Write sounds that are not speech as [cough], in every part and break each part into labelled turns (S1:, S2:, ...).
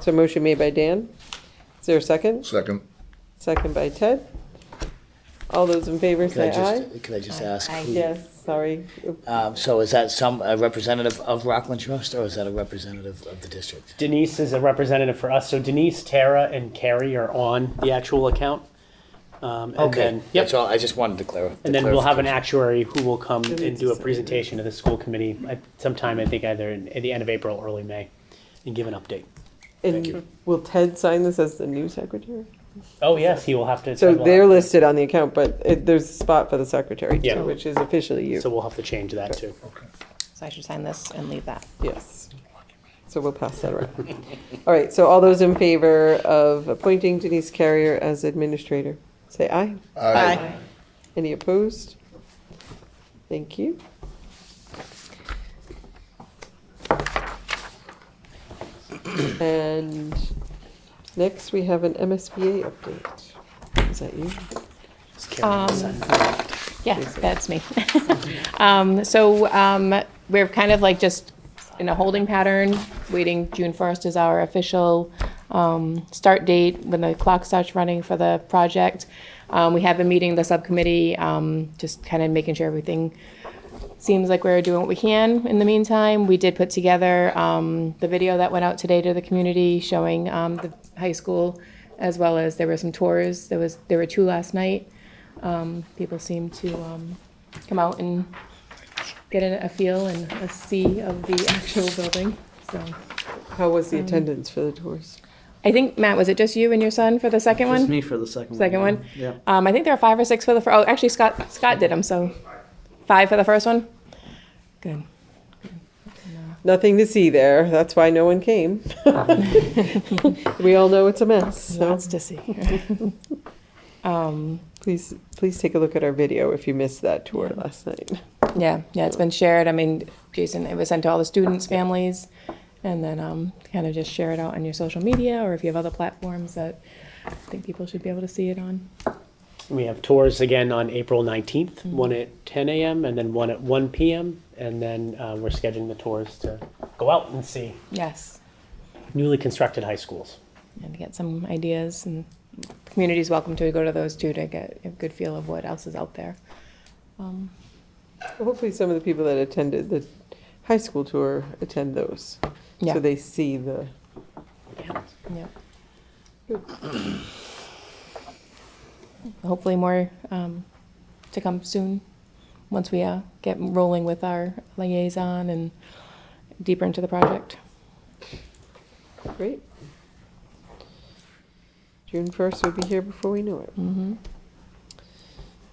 S1: So motion made by Dan. Is there a second?
S2: Second.
S1: Second by Ted. All those in favor
S3: Can I
S1: say aye.
S3: just, can I just ask?
S4: Aye.
S3: who-
S1: Yes, sorry.
S3: Um, So is that some, a representative of Rockland Trust, or is that a representative of the district?
S5: Denise is a representative for us. So Denise, Tara, and Carrie are on the actual account. Um, and
S3: Okay,
S5: Then, yep.
S3: that's all, I just wanted to clarify.
S5: And then we'll have an actuary who will come and
S1: Denise
S5: do a
S1: is-
S5: presentation to the school committee at sometime, I think either in- at the end of April, early May, and give an update.
S1: And will Ted sign this as the new secretary?
S5: Oh, yes, he will have to.
S1: So
S5: we'll have-
S1: they're listed on the account, but it, there's a spot for the secretary,
S5: Yeah.
S1: too, which is officially
S5: So
S1: you.
S5: we'll have to change that too.
S4: So I should sign this and leave that.
S1: Yes. So we'll pass that around. All right, so all those in favor of appointing Denise Carrier as administrator, say aye. Any opposed? Thank you. And next, we have an MSBA update. Is that you?
S5: Just Carrie, sign.
S4: Yeah, that's me. [laughs] Um, So um, we're kind of like just in a holding pattern, waiting, June 1st is our official um, start date, when the clock starts running for the project. Um, We have been meeting the subcommittee, um, just kind of making sure everything seems like we're doing what we can in the meantime. We did put together um, the video that went out today to the community showing um, the high school, as well as there were some tours. There was, there were two last night. Um, People seemed to um, come out and get a a feel and a see of the actual building, so.
S1: How was the attendance for the tours?
S4: I think, Matt, was it just you and your son for the second
S6: Just
S4: one?
S6: me for the second one.
S4: Second one?
S6: Yeah.
S4: Um, I think there are five or six for the, fir- oh, actually Scott, Scott did them, so five for the first one? Good.
S1: Nothing to see there. That's why no one came. We all know it's a mess, so
S4: Lots to see.
S1: please, please take a look at our video if you missed that tour last night.
S4: Yeah, yeah, it's been shared. I mean, Jason, it was sent to all the students, families, and then um, kind of just share it out on your social media or if you have other platforms that I think people should be able to see it on.
S5: We have tours again on April 19th, one at 10 a.m. and then one at 1 p.m. And then uh, we're scheduling the tours to go out and see
S4: Yes,
S5: newly constructed high schools.
S4: and get some ideas and the community's welcome to go to those too to get a good feel of what else is out there. Um,
S1: Hopefully, some of the people that attended the high school tour attend those.
S4: Yeah.
S1: So they see the,
S4: Yep. Hopefully more um, to come soon, once we uh, get rolling with our liaison and deeper into the project.
S1: great. June first will be here before we know it.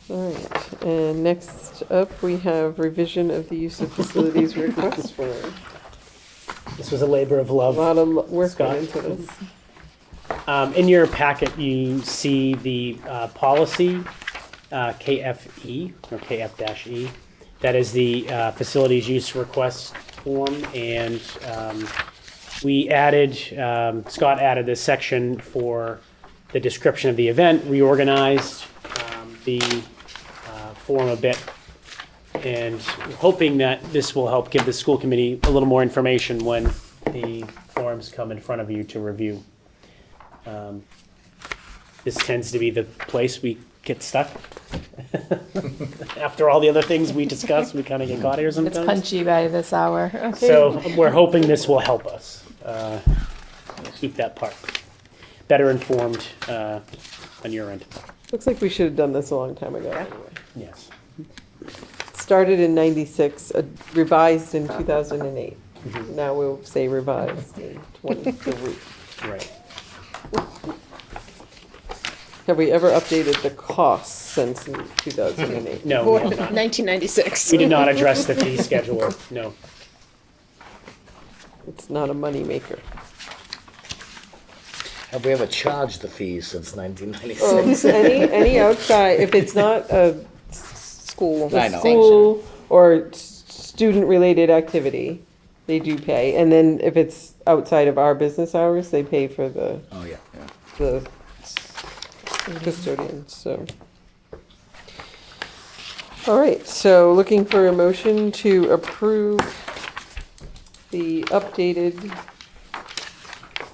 S1: All right, and next up, we have revision of the use of facilities request form.
S5: This was a labor of
S1: A
S5: love.
S1: lot of lo- work
S5: Scott.
S1: went into this.
S5: Um, in your packet, you see the uh, policy uh, KFE or KF-E. That is the uh, facilities use request form, and um, we added um, Scott added this section for the description of the event, reorganized um, the uh, form a bit, and hoping that this will help give the school committee a little more information when the forms come in front of you to review Um, this tends to be the place we get stuck. [laughs] After all the other things we discuss, we kind of get caught here
S4: It's
S5: sometimes.
S4: punchy by this hour.
S5: So we're hoping this will help us uh, keep that part better informed uh, on your end.
S1: Looks like we should have done this a long time ago. anyway.
S5: Yes.
S1: Started in ninety-six, uh, revised in two thousand and eight. Now we'll say revised in twenty-three.
S5: Right.
S1: Have we ever updated the costs since 2008?
S5: No, we, have not.
S7: 1996.
S5: we did not address the fee schedule. No.
S1: It's not a moneymaker.
S3: Have we ever charged the fees since
S1: Oh. [laughs]
S3: 1996?
S1: Any,
S3: [laughs]
S1: any outside, if it's not a s- school,
S3: I know.
S1: school or s- student-related activity, they do pay. And then if it's outside of our business hours, they pay for the,
S3: Oh, yeah, yeah.
S1: the custodian, so. All right, so looking for a motion to approve the updated